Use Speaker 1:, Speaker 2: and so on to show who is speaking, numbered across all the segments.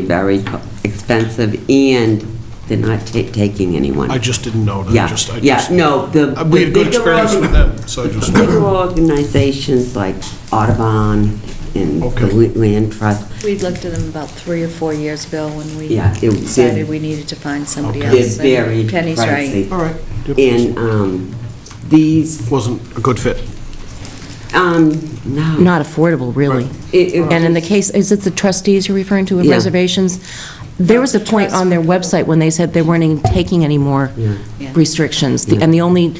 Speaker 1: be very co- expensive, and they're not ta- taking anyone.
Speaker 2: I just didn't know. I
Speaker 1: Yeah,
Speaker 2: just- I
Speaker 1: yeah,
Speaker 2: just-
Speaker 1: no, the.
Speaker 2: Uh, We had good
Speaker 1: the bigger
Speaker 2: experience with
Speaker 1: organ-
Speaker 2: them, so I just,
Speaker 1: Bigger organizations like Audubon and the
Speaker 2: Okay.
Speaker 1: Wheat Land Trust,
Speaker 3: We looked at them about three or four years ago when we
Speaker 1: Yeah, it-
Speaker 3: decided we needed to find somebody
Speaker 2: Okay.
Speaker 3: else.
Speaker 1: they're
Speaker 3: and
Speaker 1: very
Speaker 3: Penny's right.
Speaker 1: pricey.
Speaker 2: all right. Yep.
Speaker 1: And um, these,
Speaker 2: Wasn't a good fit.
Speaker 1: um, no.
Speaker 4: not affordable, really.
Speaker 1: It- it-
Speaker 4: And in the case, is it the trustees you're referring to with
Speaker 1: Yeah.
Speaker 4: reservations? There was a point on their website when they said they weren't even taking any more
Speaker 1: Yeah.
Speaker 3: Yeah.
Speaker 4: restrictions. The-
Speaker 1: Yeah.
Speaker 4: And the only,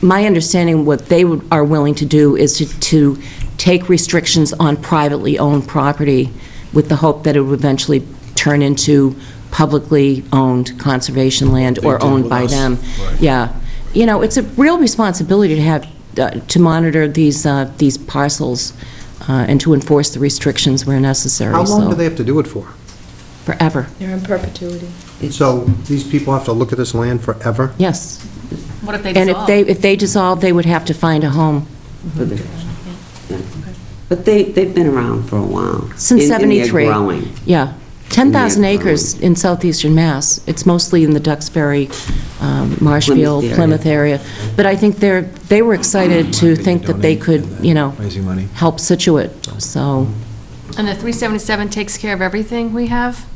Speaker 4: my understanding, what they would- are willing to do is to, to take restrictions on privately owned property with the hope that it would eventually turn into publicly owned conservation land
Speaker 2: They
Speaker 4: or
Speaker 2: did
Speaker 4: owned
Speaker 2: with
Speaker 4: by
Speaker 2: us.
Speaker 4: them.
Speaker 2: Right.
Speaker 4: Yeah. You know, it's a real responsibility to have, uh, to monitor these, uh, these parcels uh, and to enforce the restrictions where necessary,
Speaker 5: How long
Speaker 4: so-
Speaker 5: do they have to do it for?
Speaker 4: Forever,
Speaker 3: They're in perpetuity.
Speaker 5: So these people have to look at this land forever?
Speaker 4: yes.
Speaker 6: What if they
Speaker 4: And if
Speaker 6: dissolve?
Speaker 4: they, if they dissolve, they would have to find a home.
Speaker 1: for the- yeah. But they, they've been around for a while. and-
Speaker 4: Since
Speaker 1: and they're
Speaker 4: 73.
Speaker 1: growing.
Speaker 4: Yeah. 10,000
Speaker 1: Yeah,
Speaker 4: acres in southeastern Mass. It's mostly in the Duxbury, um, Marshfield,
Speaker 1: area.
Speaker 4: Plymouth area. But I think they're, they were excited to think that they could, you know,
Speaker 7: uh, Raising money.
Speaker 4: help Situate, so.
Speaker 6: And the 377 takes care of everything we have?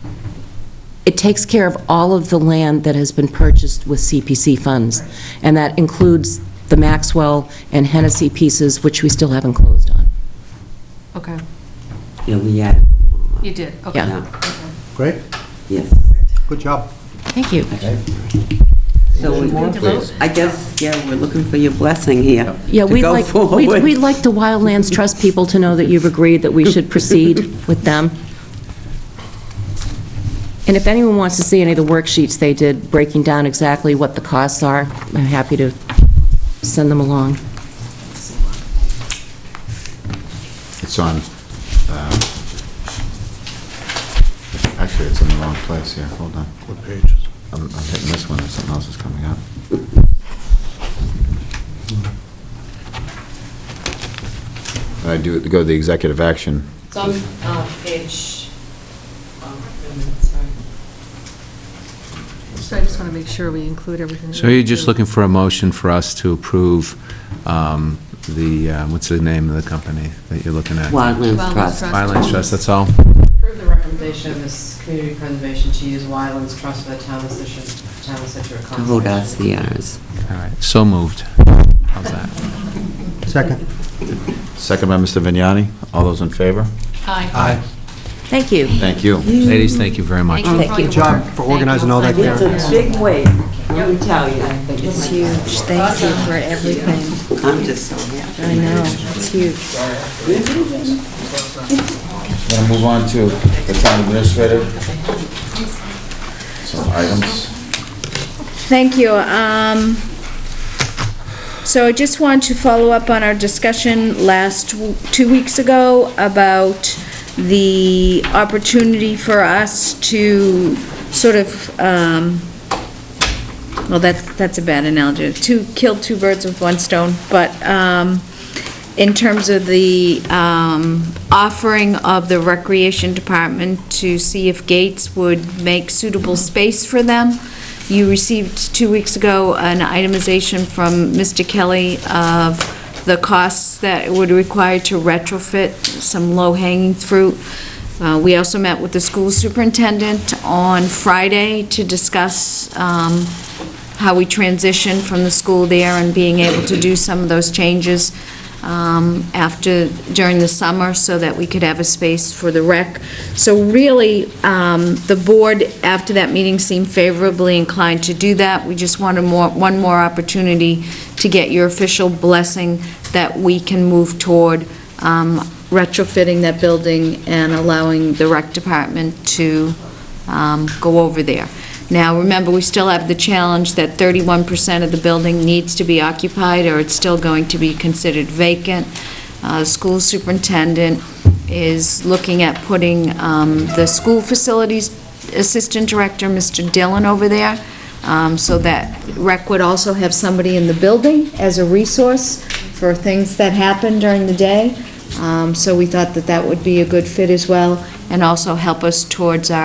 Speaker 4: It takes care of all of the land that has been purchased with CPC funds, and that includes the Maxwell and Hennessy pieces, which we still haven't closed on.
Speaker 6: Okay,
Speaker 1: Yeah, we had,
Speaker 6: you did, okay.
Speaker 4: Yeah.
Speaker 1: yeah,
Speaker 5: Great,
Speaker 1: yes.
Speaker 5: good job.
Speaker 4: Thank you.
Speaker 1: So we-
Speaker 6: Need to vote?
Speaker 1: I guess, yeah, we're looking for your blessing here.
Speaker 4: Yeah,
Speaker 1: to
Speaker 4: we'd
Speaker 1: go
Speaker 4: like,
Speaker 1: forward.
Speaker 4: we'd we'd like the Wildlands Trust people to know that you've agreed that we should proceed with them. And if anyone wants to see any of the worksheets they did, breaking down exactly what the costs are, I'm happy to send them along.
Speaker 7: It's on, uh, actually, it's in the wrong place here, hold on.
Speaker 2: What pages?
Speaker 7: I'm I'm hitting this one, or something else is coming up. I do, go to the executive action.
Speaker 8: It's on uh, page, oh, wait a minute, sorry.
Speaker 6: So I just want to make sure we include everything.
Speaker 9: So you're just looking for a motion for us to approve um, the, uh, what's the name of the company that you're looking at?
Speaker 1: Wildlands
Speaker 6: Wildlands
Speaker 1: Trust.
Speaker 6: Trust.
Speaker 9: Wildlands Trust, that's all?
Speaker 8: Approve the recommendation of this community preservation to use Wyland's Trust for the town of Situate, town of Situate
Speaker 1: To hold our
Speaker 8: Conservation.
Speaker 1: CRs.
Speaker 9: All right, so moved. How's that?
Speaker 5: Second.
Speaker 7: Second by Mr. Vignani, all those in favor?
Speaker 6: Hi.
Speaker 4: Thank you.
Speaker 7: Thank you.
Speaker 9: Ladies, thank you very much.
Speaker 6: Thank you for all your
Speaker 5: Good job
Speaker 6: work.
Speaker 5: for
Speaker 6: Thank you.
Speaker 5: organizing all that,
Speaker 6: Yeah.
Speaker 5: Karen.
Speaker 1: It's a big weight, let me tell you.
Speaker 3: It's huge. Thank you for everything.
Speaker 1: I'm just so happy.
Speaker 3: I know, it's huge.
Speaker 7: Want to move on to the town administrator? Some items.
Speaker 10: Thank you. Um, So I just want to follow up on our discussion last, w- two weeks ago about the opportunity for us to sort of, um, well, that's, that's a bad analogy, to kill two birds with one stone, but um, in terms of the um, offering of the Recreation Department to see if Gates would make suitable space for them. You received two weeks ago an itemization from Mr. Kelly of the costs that it would require to retrofit some low-hanging fruit. Uh, We also met with the school superintendent on Friday to discuss um, how we transition from the school there and being able to do some of those changes um, after, during the summer, so that we could have a space for the rec. So really, um, the board, after that meeting, seemed favorably inclined to do that. We just wanted more, one more opportunity to get your official blessing that we can move toward um, retrofitting that building and allowing the rec department to um, go over there. Now, remember, we still have the challenge that 31% of the building needs to be occupied, or it's still going to be considered vacant. Uh, The School superintendent is looking at putting um, the school facilities assistant director, Mr. Dillon, over there, um, so that rec would also have somebody in the building as a resource for things that happen during the day. Um, So we thought that that would be a good fit as well. and also help us towards our